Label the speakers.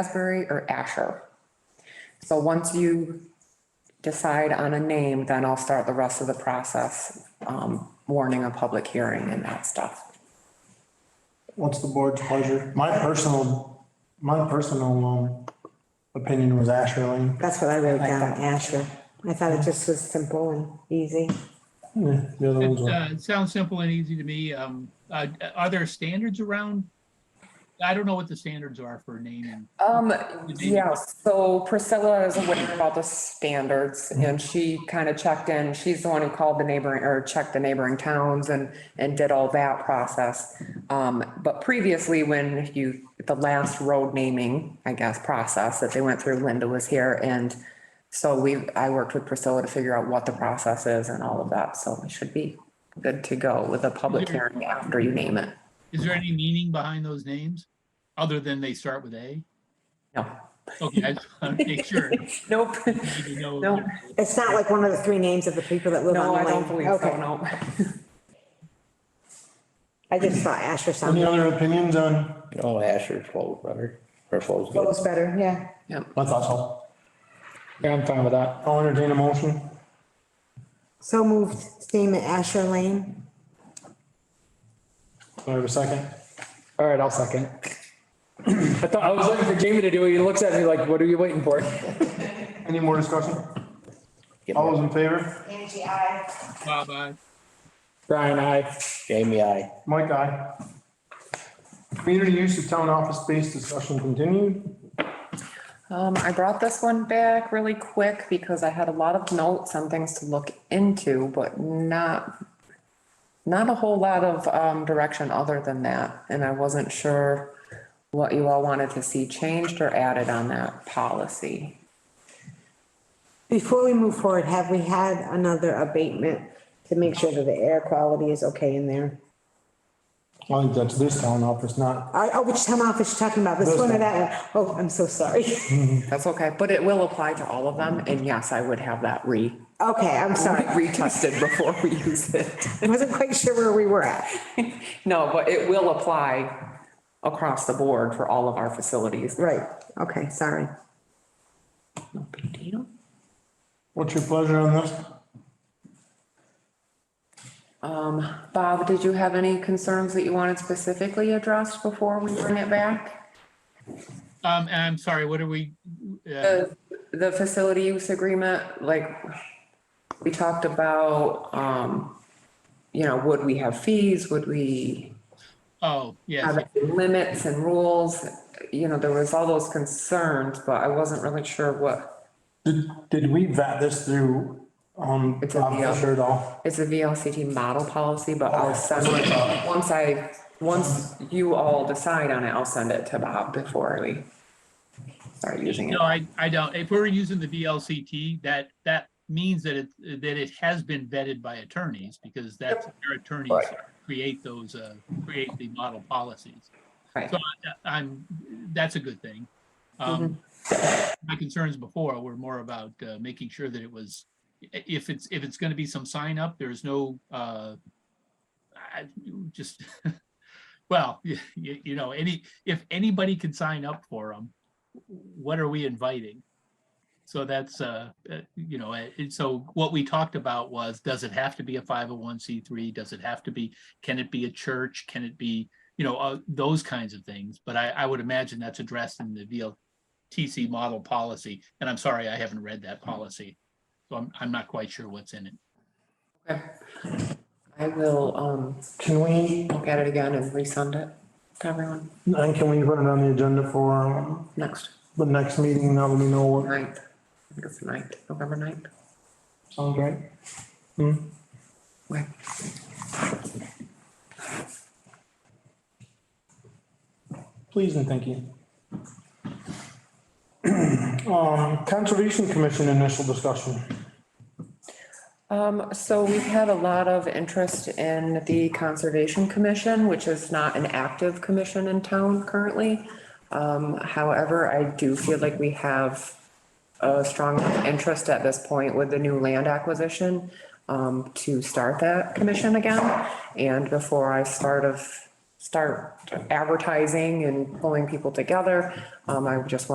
Speaker 1: Asbury or Asher. So once you decide on a name, then I'll start the rest of the process, um, warning a public hearing and that stuff.
Speaker 2: What's the board's pleasure? My personal, my personal, um, opinion was Asher Lane.
Speaker 3: That's what I wrote down, Asher. I thought it just was simple and easy.
Speaker 2: Yeah, The other ones
Speaker 4: It
Speaker 2: were,
Speaker 4: uh, it sounds simple and easy to me. Um, uh, Are there standards around? I don't know what the standards are for naming.
Speaker 1: Um, yeah, so Priscilla is aware about the standards and she kind of checked in. She's the one who called the neighboring, or checked the neighboring towns and, and did all that process. Um, but previously when you, the last road naming, I guess, process that they went through, Linda was here and so we, I worked with Priscilla to figure out what the process is and all of that. So we should be good to go with a public hearing after you name it.
Speaker 4: Is there any meaning behind those names, other than they start with A?
Speaker 1: No,
Speaker 4: Okay, I just want to make sure.
Speaker 1: nope.
Speaker 4: I need to know-
Speaker 1: No.
Speaker 3: It's not like one of the three names of the people that live on the
Speaker 1: No, I
Speaker 3: lane.
Speaker 1: don't believe so,
Speaker 3: Okay.
Speaker 1: no.
Speaker 3: I just thought Asher
Speaker 2: any
Speaker 3: sounded,
Speaker 2: other opinions on,
Speaker 5: Oh, Asher's close, brother. Her close.
Speaker 3: Well, it's better, yeah.
Speaker 1: Yep.
Speaker 2: my thoughts all.
Speaker 5: Yeah, I'm fine with that.
Speaker 2: I'll entertain a motion.
Speaker 3: So moved, name it Asher Lane.
Speaker 2: Do I have a second?
Speaker 6: All right, I'll second. I thought, I was looking for Jamie to do it. He looks at me like, what are you waiting for?
Speaker 2: Any more discussion?
Speaker 5: Give
Speaker 2: All those
Speaker 5: me-
Speaker 2: in favor?
Speaker 3: Angie, I.
Speaker 4: Bob, aye.
Speaker 6: Brian, I,
Speaker 5: Jamie, I.
Speaker 2: Mike, aye. Community use of town office space discussion continued.
Speaker 1: Um, I brought this one back really quick because I had a lot of notes on things to look into, but not, not a whole lot of, um, direction other than that. And I wasn't sure what you all wanted to see changed or added on that policy.
Speaker 3: Before we move forward, have we had another abatement to make sure that the air quality is okay in there?
Speaker 2: I think that's this town office, not,
Speaker 3: Oh, oh, which town office you talking about? This one or that one? Oh, I'm so sorry.
Speaker 1: That's okay, but it will apply to all of them. And yes, I would have that re,
Speaker 3: Okay, I'm sorry.
Speaker 1: retested before we use it.
Speaker 3: I wasn't quite sure where we were at.
Speaker 1: No, but it will apply across the board for all of our facilities.
Speaker 3: Right, okay, sorry.
Speaker 1: No big deal.
Speaker 2: what's your pleasure on this?
Speaker 1: Um, Bob, did you have any concerns that you wanted specifically addressed before we bring it back?
Speaker 4: Um, and I'm sorry, what are we? uh,
Speaker 1: The, the facility use agreement, like, we talked about, um, you know, would we have fees? Would we
Speaker 4: Oh, yes.
Speaker 1: have limits and rules? You know, there was all those concerns, but I wasn't really sure what,
Speaker 2: Did, did we vet this through, um,
Speaker 1: It's in the,
Speaker 2: Bob Fisher at all?
Speaker 1: it's a VLCT model policy, but I'll send
Speaker 2: That's what I thought.
Speaker 1: it, once I, once you all decide on it, I'll send it to Bob before we start using it.
Speaker 4: No, I, I don't. If we're using the VLCT, that, that means that it, that it has been vetted by attorneys because that's their attorneys
Speaker 5: Right.
Speaker 4: create those, uh, create the model policies.
Speaker 1: Right.
Speaker 4: So I- I'm, that's a good thing. Um,
Speaker 1: Mm-hmm.
Speaker 4: My concerns before were more about, uh, making sure that it was, i- if it's, if it's going to be some sign up, there's no, uh, I, just, well, you, you know, any, if anybody can sign up for them, what are we inviting? So that's, uh, uh, you know, uh, and so what we talked about was, does it have to be a five oh one C three? Does it have to be, can it be a church? Can it be, you know, uh, those kinds of things? But I, I would imagine that's addressed in the VLTC model policy. And I'm sorry, I haven't read that policy. So I'm, I'm not quite sure what's in it.
Speaker 1: Okay. I will, um,
Speaker 2: Can we,
Speaker 1: look at it again and resend it to everyone
Speaker 2: and can we put it on the agenda for, um,
Speaker 1: next
Speaker 2: the next meeting, now that we know what
Speaker 1: night. I think it's the ninth, November ninth.
Speaker 2: sounds right.
Speaker 1: Okay.
Speaker 2: Please and thank you. Um, Conservation Commission initial discussion.
Speaker 1: Um, so we've had a lot of interest in the Conservation Commission, which is not an active commission in town currently. Um, however, I do feel like we have a strong interest at this point with the new land acquisition um, to start that commission again. And before I start of start advertising and pulling people together. Um, I just want